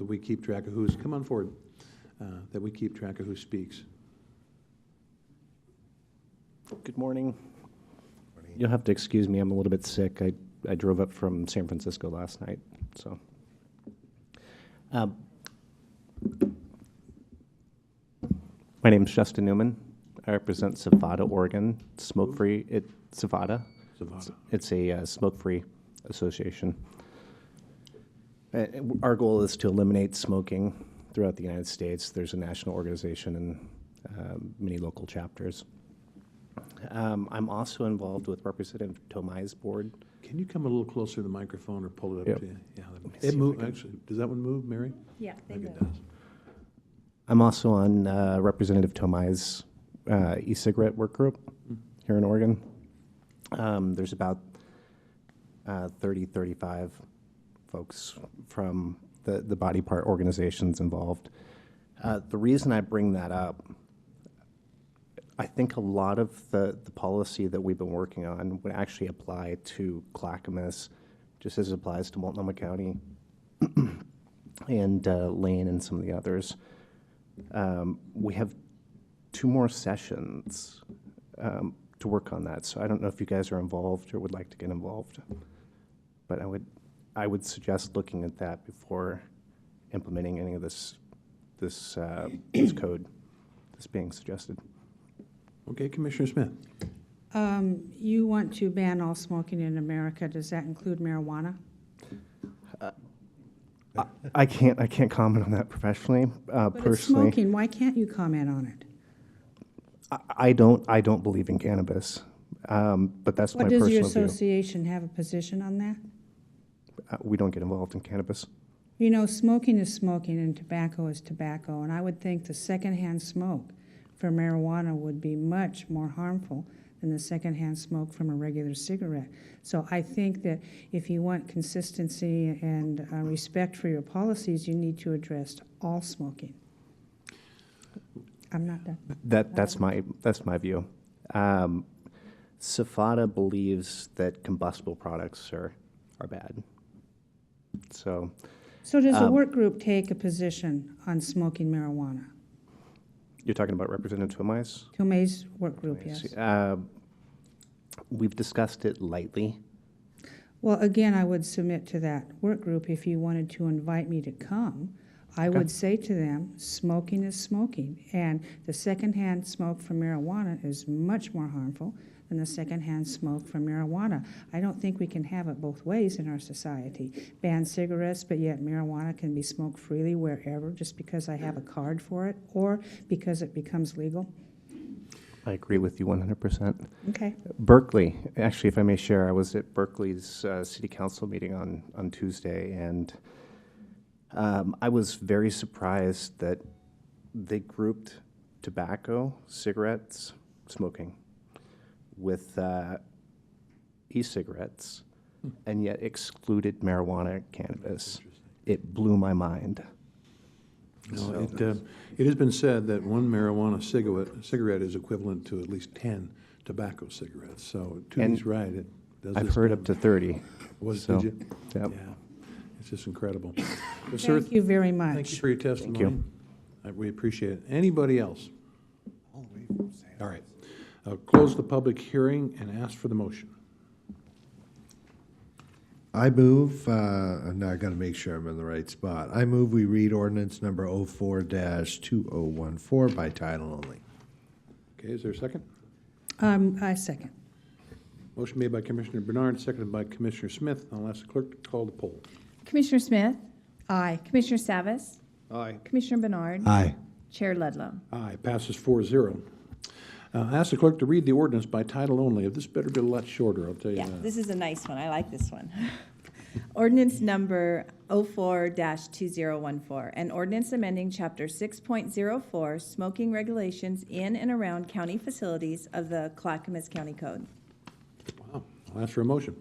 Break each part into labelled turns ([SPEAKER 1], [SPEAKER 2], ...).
[SPEAKER 1] that we keep track of who's, come on forward, uh, that we keep track of who speaks.
[SPEAKER 2] Good morning. You'll have to excuse me, I'm a little bit sick. I, I drove up from San Francisco last night, so. Um, My name's Justin Newman. I represent Savada, Oregon, smoke-free, it, Savada.
[SPEAKER 1] Zavada.
[SPEAKER 2] It's a uh, smoke-free association. Uh, Our goal is to eliminate smoking throughout the United States. There's a national organization and um, many local chapters. Um, I'm also involved with Representative Tomai's board.
[SPEAKER 1] Can you come a little closer to the microphone or pull it up
[SPEAKER 2] Yep.
[SPEAKER 1] to you? Yeah, that-
[SPEAKER 2] Let me see if
[SPEAKER 1] it
[SPEAKER 2] I
[SPEAKER 1] moved,
[SPEAKER 2] can-
[SPEAKER 1] actually, does that one move, Mary?
[SPEAKER 3] Yeah,
[SPEAKER 1] I
[SPEAKER 3] they
[SPEAKER 1] think
[SPEAKER 3] move.
[SPEAKER 1] it does.
[SPEAKER 2] I'm also on uh, Representative Tomai's uh, e-cigarette work group here in Oregon. Um, there's about uh, 30, 35 folks from the, the body part organizations involved. Uh, the reason I bring that up, I think a lot of the, the policy that we've been working on would actually apply to Clackamas, just as it applies to Multnomah County and uh, Lane and some of the others. Um, we have two more sessions um, to work on that, so I don't know if you guys are involved or would like to get involved. But I would, I would suggest looking at that before implementing any of this, this, uh, this code that's being suggested.
[SPEAKER 1] Okay, Commissioner Smith?
[SPEAKER 4] Um, You want to ban all smoking in America. Does that include marijuana?
[SPEAKER 2] I- I can't, I can't comment on that professionally, uh,
[SPEAKER 4] But it's
[SPEAKER 2] personally.
[SPEAKER 4] smoking, why can't you comment on it?
[SPEAKER 2] I- I don't, I don't believe in cannabis, um, but that's my
[SPEAKER 4] What, does your
[SPEAKER 2] personal view.
[SPEAKER 4] association have a position on that?
[SPEAKER 2] Uh, We don't get involved in cannabis.
[SPEAKER 4] You know, smoking is smoking and tobacco is tobacco, and I would think the secondhand smoke from marijuana would be much more harmful than the secondhand smoke from a regular cigarette. So I think that if you want consistency and uh, respect for your policies, you need to address all smoking. I'm not done.
[SPEAKER 2] That, that's my, that's my view. Um, Safada believes that combustible products are, are bad. So
[SPEAKER 4] So does the work group take a position on smoking marijuana?
[SPEAKER 2] you're talking about Representative Tomais?
[SPEAKER 4] Tomei's work group, yes.
[SPEAKER 2] Uh, We've discussed it lightly.
[SPEAKER 4] Well, again, I would submit to that work group, if you wanted to invite me to come, I would say to them, smoking is smoking. And the secondhand smoke from marijuana is much more harmful than the secondhand smoke from marijuana. I don't think we can have it both ways in our society. Ban cigarettes, but yet marijuana can be smoked freely wherever just because I have a card for it or because it becomes legal.
[SPEAKER 2] I agree with you 100%.
[SPEAKER 4] Okay.
[SPEAKER 2] Berkeley, actually, if I may share, I was at Berkeley's uh, city council meeting on, on Tuesday, and um, I was very surprised that they grouped tobacco, cigarettes, smoking with uh, e-cigarettes,
[SPEAKER 1] Hmm.
[SPEAKER 2] and yet excluded marijuana, cannabis. It blew my mind.
[SPEAKER 1] No, it, uh, it has been said that one marijuana cigarette, cigarette is equivalent to at least 10 tobacco cigarettes, so Toonie's
[SPEAKER 2] And
[SPEAKER 1] right, it does
[SPEAKER 2] I've
[SPEAKER 1] this
[SPEAKER 2] heard
[SPEAKER 1] damage.
[SPEAKER 2] up to 30.
[SPEAKER 1] Was,
[SPEAKER 2] so,
[SPEAKER 1] did you?
[SPEAKER 2] yep.
[SPEAKER 1] Yeah, it's just incredible. Well, sir,
[SPEAKER 4] Thank you very much.
[SPEAKER 1] Thank you for your testimony. Uh, We appreciate it. Anybody else? All right. I'll close the public hearing and ask for the motion.
[SPEAKER 5] I move, uh, I'm not gonna make sure I'm in the right spot. I move we read ordinance number oh four two oh one four by title only.
[SPEAKER 1] Okay, is there a second?
[SPEAKER 4] Um, I second.
[SPEAKER 1] Motion made by Commissioner Bernard, seconded by Commissioner Smith. I'll ask the clerk to call the poll.
[SPEAKER 3] Commissioner Smith,
[SPEAKER 4] Aye.
[SPEAKER 3] Commissioner Savas,
[SPEAKER 1] Aye.
[SPEAKER 3] Commissioner Bernard,
[SPEAKER 5] Aye.
[SPEAKER 3] Chair Ludlow.
[SPEAKER 1] Aye, passes 4-0. Uh, ask the clerk to read the ordinance by title only. This better be a lot shorter, I'll tell you
[SPEAKER 6] Yeah,
[SPEAKER 1] that.
[SPEAKER 6] this is a nice one. I like this one. Ordinance number 04-2014, an ordinance amending Chapter 6.04, smoking regulations in and around county facilities of the Clackamas County Code.
[SPEAKER 1] Wow. I'll ask for a motion.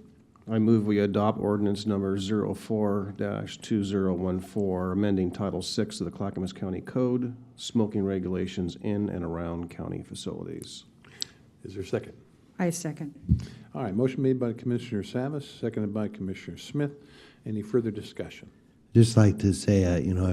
[SPEAKER 7] I move we adopt ordinance number 04-2014, amending Title VI of the Clackamas County Code, smoking regulations in and around county facilities.
[SPEAKER 1] Is there a second?
[SPEAKER 4] I second.
[SPEAKER 1] All right, motion made by Commissioner Savas, seconded by Commissioner Smith. Any further discussion?
[SPEAKER 5] Just like to say, uh, you know,